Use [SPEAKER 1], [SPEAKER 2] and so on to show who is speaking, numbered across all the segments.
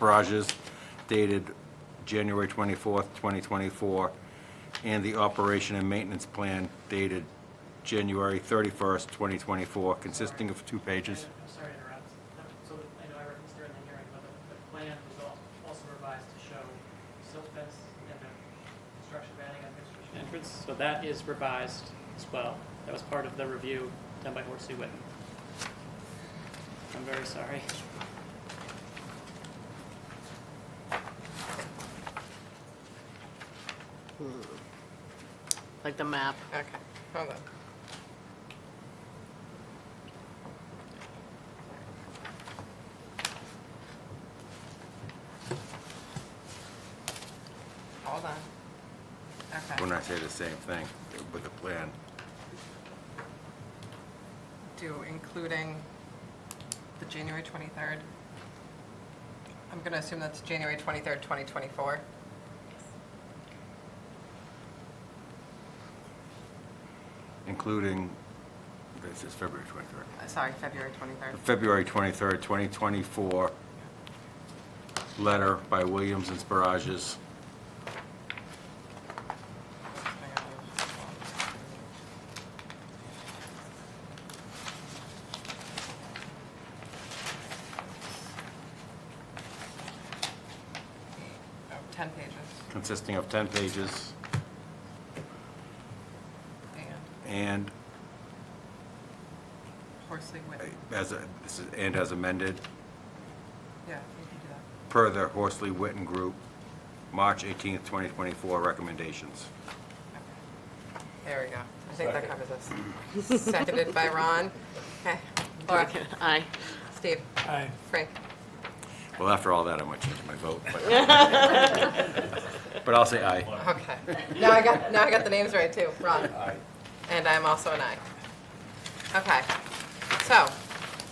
[SPEAKER 1] barrages dated January 24th, 2024, and the operation and maintenance plan dated January 31st, 2024, consisting of two pages.
[SPEAKER 2] I'm sorry to interrupt. Um, So I know I referenced during the hearing, but the- the plan was al- also revised to show silt fence and a construction banning on Mixed Street entrance. So that is revised as well. That was part of the review done by Horsey Whitten. I'm very sorry.
[SPEAKER 3] like the map.
[SPEAKER 4] Okay, hold on. Hold on.
[SPEAKER 1] When
[SPEAKER 4] Okay,
[SPEAKER 1] I say the same thing with the plan,
[SPEAKER 4] do including the January 23rd. I'm going to assume that's January 23rd, 2024.
[SPEAKER 1] including, this is February 23rd,
[SPEAKER 4] Uh, Sorry, February 23rd.
[SPEAKER 1] the February 23rd, 2024 letter by Williams and Barrages
[SPEAKER 4] Oh, 10 pages,
[SPEAKER 1] consisting of 10 pages
[SPEAKER 4] and
[SPEAKER 1] and
[SPEAKER 4] Horsley
[SPEAKER 1] uh,
[SPEAKER 4] Whitten,
[SPEAKER 1] as, a- this is- and as amended,
[SPEAKER 4] yeah, you can do that.
[SPEAKER 1] per the Horsley Witten Group, March 18th, 2024 recommendations.
[SPEAKER 4] There we go, I think that covers us. Seconded by Ron. Okay, Laura,
[SPEAKER 3] Aye.
[SPEAKER 4] Steve,
[SPEAKER 2] Aye.
[SPEAKER 4] Frank,
[SPEAKER 1] Well, after all that, I might change my vote, but, but I'll say aye.
[SPEAKER 4] okay. Now I got, now I got the names right too, Ron. And I'm also an aye. Okay, so,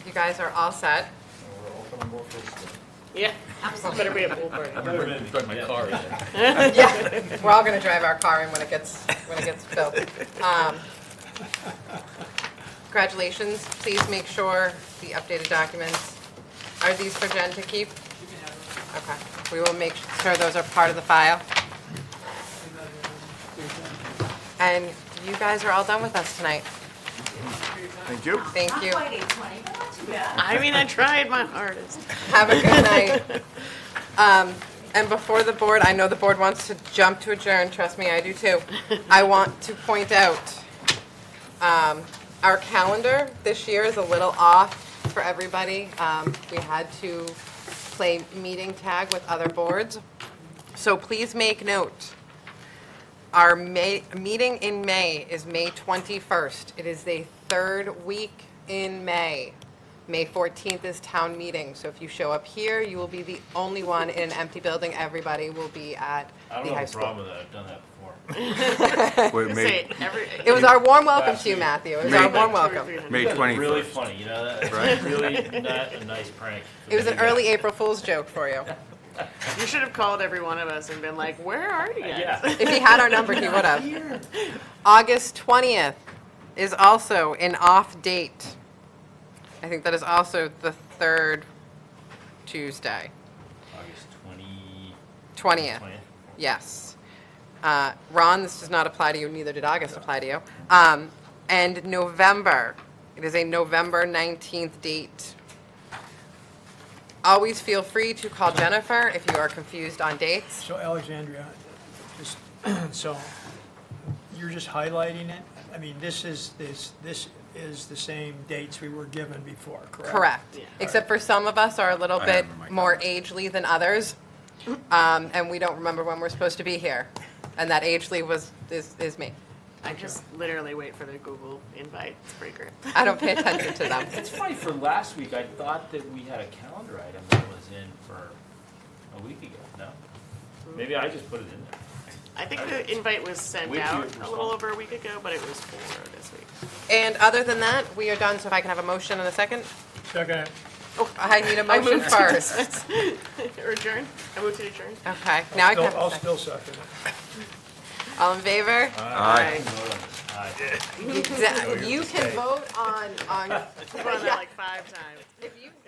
[SPEAKER 4] you guys are all set.
[SPEAKER 3] Yeah. Better be a Bloomberg.
[SPEAKER 4] Yeah, we're all gonna drive our car in when it gets, when it gets filled. Um, Congratulations, please make sure the updated documents, are these for Jen to keep?
[SPEAKER 2] You can have it.
[SPEAKER 4] Okay, we will make sure those are part of the file. And you guys are all done with us tonight.
[SPEAKER 5] Thank you.
[SPEAKER 4] Thank you.
[SPEAKER 6] Not quite 820, but not too bad.
[SPEAKER 3] I mean, I tried my hardest.
[SPEAKER 4] Have a good night. Um, And before the board, I know the board wants to jump to adjourn, trust me, I do too. I want to point out, um, our calendar this year is a little off for everybody. Um, We had to play meeting tag with other boards. So please make note, our May, meeting in May is May 21st. It is the third week in May. May 14th is town meeting, so if you show up here, you will be the only one in an empty building. Everybody will be at
[SPEAKER 7] I
[SPEAKER 4] the
[SPEAKER 7] don't
[SPEAKER 4] high
[SPEAKER 7] have a
[SPEAKER 4] school.
[SPEAKER 7] problem with that, I've done that before.
[SPEAKER 1] Wait,
[SPEAKER 3] Say
[SPEAKER 1] May,
[SPEAKER 3] it every.
[SPEAKER 4] It was our warm welcome to you,
[SPEAKER 7] Last
[SPEAKER 4] Matthew. It was our
[SPEAKER 1] May-
[SPEAKER 4] warm
[SPEAKER 3] two or three
[SPEAKER 4] welcome.
[SPEAKER 3] hundred.
[SPEAKER 1] May
[SPEAKER 7] Really
[SPEAKER 1] 21st.
[SPEAKER 7] funny, you know,
[SPEAKER 1] Right.
[SPEAKER 7] that's really not a nice prank. for
[SPEAKER 4] It was
[SPEAKER 7] me
[SPEAKER 4] an
[SPEAKER 7] to do.
[SPEAKER 4] early April Fool's joke for you.
[SPEAKER 3] You should have called every one of us and been like, where are you guys?
[SPEAKER 7] Yeah,
[SPEAKER 4] If he had our number, he would have. August 20th is also an off date. I think that is also the third Tuesday.
[SPEAKER 7] August 20,
[SPEAKER 4] 20th,
[SPEAKER 7] 20th.
[SPEAKER 4] yes. Uh, Ron, this does not apply to you, neither did August apply to you. Um, And November, it is a November 19th date. Always feel free to call Jennifer if you are confused on dates.
[SPEAKER 8] So Alexandria, just, so you're just highlighting it? I mean, this is, this, this is the same dates we were given before, correct?
[SPEAKER 4] Correct. Except for some of us are a little
[SPEAKER 1] Oh, I
[SPEAKER 4] bit
[SPEAKER 1] remember my
[SPEAKER 4] more agely than others, um, and we don't remember when we're supposed to be here. And that agely was, is, is me.
[SPEAKER 3] I just literally wait for the Google invite breaker.
[SPEAKER 4] I don't pay attention to them.
[SPEAKER 7] It's funny, for last week, I thought that we had a calendar item that was in for a week ago, no? Maybe I just put it in there.
[SPEAKER 3] I think the invite was sent
[SPEAKER 7] We do
[SPEAKER 3] out a
[SPEAKER 7] respond.
[SPEAKER 3] little over a week ago, but it was forwarded this week.
[SPEAKER 4] And other than that, we are done, so if I can have a motion in a second?
[SPEAKER 8] Second,
[SPEAKER 4] Oh, I need a
[SPEAKER 3] I
[SPEAKER 4] motion
[SPEAKER 3] moved to
[SPEAKER 4] first.
[SPEAKER 3] dismiss. Or adjourn. I moved to adjourn.
[SPEAKER 4] Okay, now I can have
[SPEAKER 8] I'll
[SPEAKER 4] a second.
[SPEAKER 8] still second it.
[SPEAKER 4] All in favor?
[SPEAKER 1] Aye.
[SPEAKER 7] Vote on this. Aye.
[SPEAKER 4] Exa- Uh, You can vote on, on,
[SPEAKER 3] I've done that like five times.
[SPEAKER 4] if you